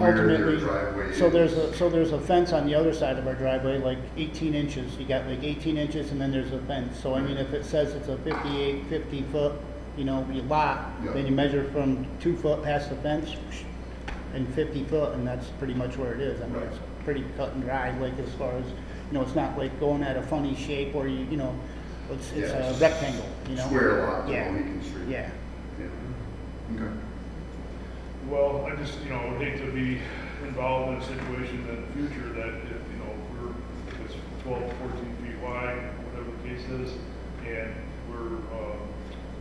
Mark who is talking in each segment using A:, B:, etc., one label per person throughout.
A: Where their
B: ultimately,
A: driveway
B: so there's
A: is.
B: a, so there's a fence on the other side of our driveway, like eighteen inches, you got like eighteen inches and then there's a fence. So I mean, if it says it's a 58, 50 foot, you know, you lot,
A: Yeah.
B: then you measure from two foot past the fence and fifty foot, and that's pretty much where it is. I mean,
A: Right.
B: it's pretty cut and dry, like as far as, you know, it's not like going at a funny shape or you, you know, it's, it's
A: Yeah,
B: a
A: it's
B: rectangle, you know?
A: Square lot, the
B: Yeah.
A: Mohegan Street.
B: Yeah.
A: Yeah. Okay.
C: Well, I just, you know, would hate to be involved in a situation in the future that, if, you know, if we're, if it's 12, 14 feet wide, whatever the case is, and we're, um,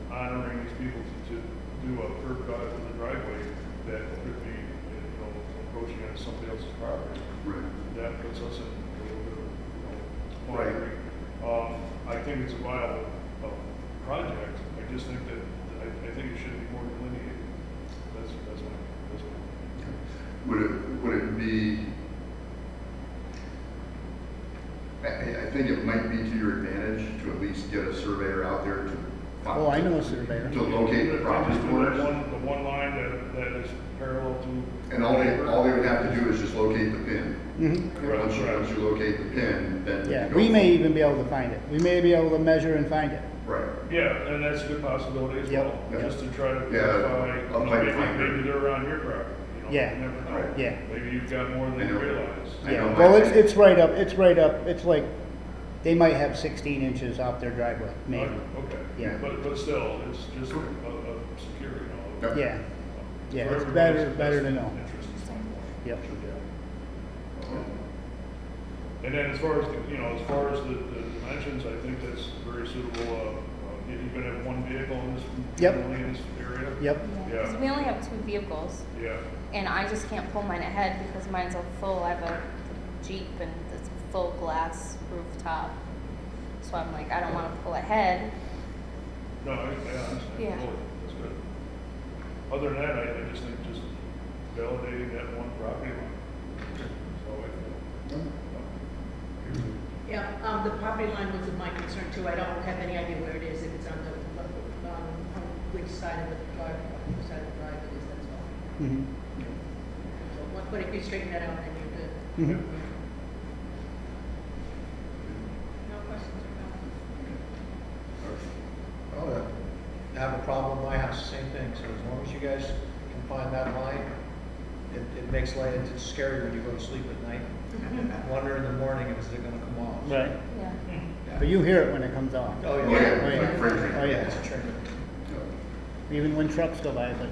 C: honoring these people to, to do a curb cut in the driveway that could be, you know, encroaching on somebody else's property.
A: Right.
C: That puts us in a little bit of, you know,
A: Right.
C: quandary. Um, I think it's a viable, uh, project, I just think that, I, I think it should be more delineated. That's, that's my, that's my.
A: Would it, would it be? I- I, I think it might be to your advantage to at least get a surveyor out there to. find-
B: Oh, I know a surveyor.
A: To locate the property
C: Just do that
A: corners.
C: one, the one line that, that is parallel to.
A: And all they, all they would have to do is just locate the pin.
B: Mhm.
A: And once you, once you locate the pin, then. you
B: Yeah,
A: go
B: we may
A: from-
B: even be able to find it. We may be able to measure and find it.
A: Right.
C: Yeah, and that's a good possibility as well,
A: Yep.
C: just to try to
A: Yeah,
C: clarify, you know,
A: upland
C: maybe,
A: finder.
C: maybe they're on your property, you know, you
B: Yeah.
C: never know.
A: Right.
B: Yeah.
C: Maybe you've got more than
A: I
C: you
A: know.
C: realize.
A: I know
B: Yeah,
A: my
B: well, it's,
A: thing.
B: it's right up, it's right up, it's like, they might have sixteen inches off their driveway, maybe.
C: Okay.
B: Yeah.
C: But, but still, it's just a, a a security and
A: Yep.
C: all.
B: Yeah, yeah,
C: For
B: it's
C: everybody's
B: better, better to
C: best
B: know.
C: interest.
B: Yep.
C: And then as far as, the- you know, as far as the, the dimensions, I think that's very suitable, uh, uh, you can have one vehicle in this,
B: Yep.
C: generally in this area.
B: Yep,
C: Yeah.
D: Because we only have two vehicles,
C: Yeah,
D: and I just can't pull mine ahead because mine's all full. I have a Jeep and it's a full glass rooftop. So I'm like, I don't want to pull ahead.
C: no, I, I understand,
D: Yeah.
C: totally, that's good. Other than that, I, I just think just validating that one property line. So
B: Mm-hmm.
E: Yeah, um, the property line was my concern too. I don't have any idea where it is, if it's on the, um, on which side of the drive, which side of the drive it is, that's all.
B: mhm,
E: So, what- But if you straighten that out, then you're
B: mhm.
E: good. No questions or comments?
F: Oh, I have a problem in my house, same thing, so as long as you guys can find that line, it, it makes light, it's scary when you go to sleep at night. Wonder in the morning if it's gonna come off.
B: right.
D: Yeah.
B: But you hear it when it comes off.
F: Oh,
A: Oh,
F: yeah.
B: Oh,
A: yeah, like
B: yeah.
A: Fraser.
B: Oh,
F: It's
B: yeah,
F: a trigger.
B: even when trucks go by, it's like,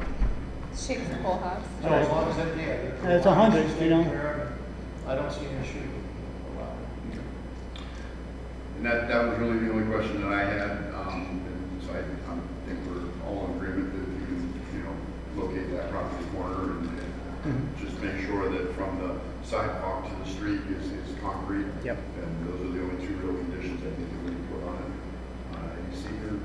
D: Shakes the whole house.
F: So as long as that, yeah. the-
B: It's a hundred, you know.
F: I don't see an issue. Wow.
A: And that, that was really the only question that I had, um, and so I, I think we're all in agreement that you can, you know, locate that property corner and, and just make sure that from the sidewalk to the street is, is concrete.
B: Yep.
A: And those are the only two real conditions I think that we put on it. Uh, you see your?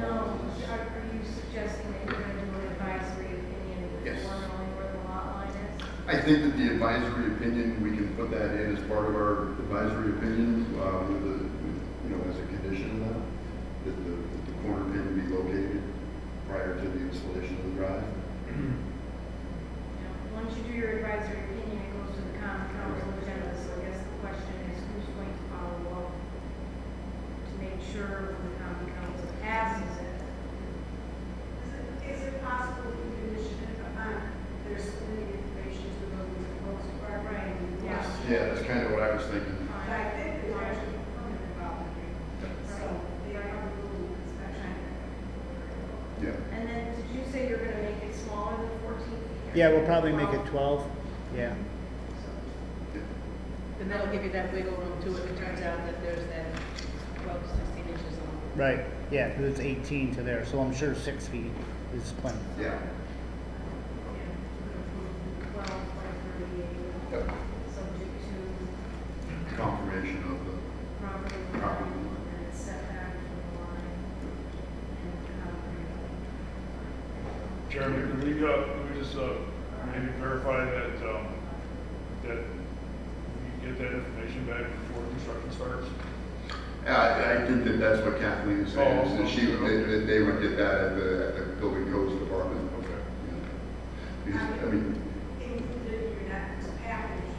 G: No, are, are you suggesting that you're gonna do an advisory opinion with
A: Yes.
G: one only where the lot line is?
A: I think that the advisory opinion, we can put that in as part of our advisory opinion, uh, with the, with, you know, as a condition of that, that the, that the corner pin be located prior to the installation of the drive.
G: Now, Once you do your advisory opinion, it goes to the common council agenda, so I guess the question is who's going to follow up to make sure when the common council passes it?
H: Is it, is it possible to condition it um, upon their submitting information to the building control department?
G: Yeah.
A: Yeah, that's kind of what I was thinking.
H: But I think there's actually a permit involved here, so they are on the rule inspection.
A: Yeah.
G: And then, did you say you're gonna make it smaller than fourteen feet?
B: yeah, we'll probably make it twelve, yeah.
E: Then that'll give you that wiggle room too, if it turns out that there's that twelve, sixteen inches long.
B: Right, yeah, 'cause it's eighteen to there, so I'm sure six feet is plenty.
A: Yeah.
G: Twelve, like thirty-eight,
A: Yep.
G: subject to
A: Confirmation of
G: property line and it's set back from the line and um,
C: Jeremy,
G: concrete.
C: can we, uh, can we just, uh, maybe verify that, um, that we get that information back before construction starts?
A: the, I, I think that that's what Kathleen is saying, is that she, that, that they would get that at the, at the building codes department.
C: Okay.
A: Because, I mean,